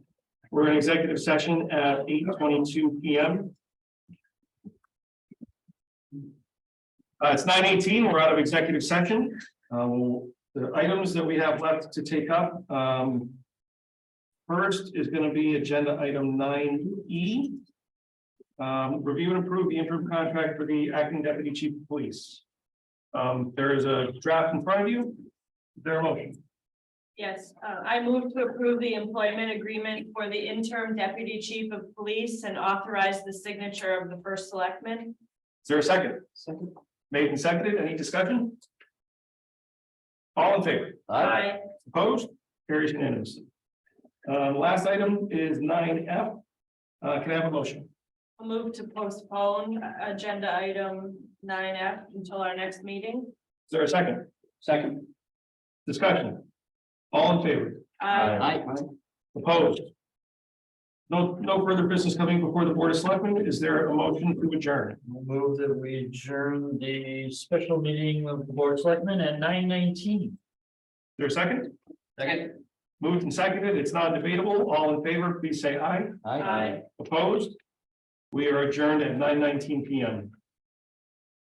We're in executive session at eight twenty-two P M. Uh, it's nine eighteen, we're out of executive session. Uh, we'll- the items that we have left to take up, um. First is gonna be agenda item nine E. Um, review and approve the interim contract for the acting deputy chief of police. Um, there is a draft in front of you. Is There a motion, Yes, uh, I move to approve the employment agreement for the interim deputy chief of police and authorize the signature of the first selectman. is there a second? Second. Made and seconded, any discussion? All in favor? I, Opposed? Carries unanimously. Uh, last item is nine F. Uh, can I have a motion? move to postpone uh, agenda item nine F until our next meeting. Is there a second? Second. Discussion. All in favor? I, Opposed? No, no further business coming before the Board of Selectmen. Is there a motion to adjourn? Move that we adjourn the special meeting of the board of selectmen at nine nineteen. Is There a second? Moved and seconded. It's not debatable. All in favor, please say aye. I. Opposed? We are adjourned at nine nineteen P M.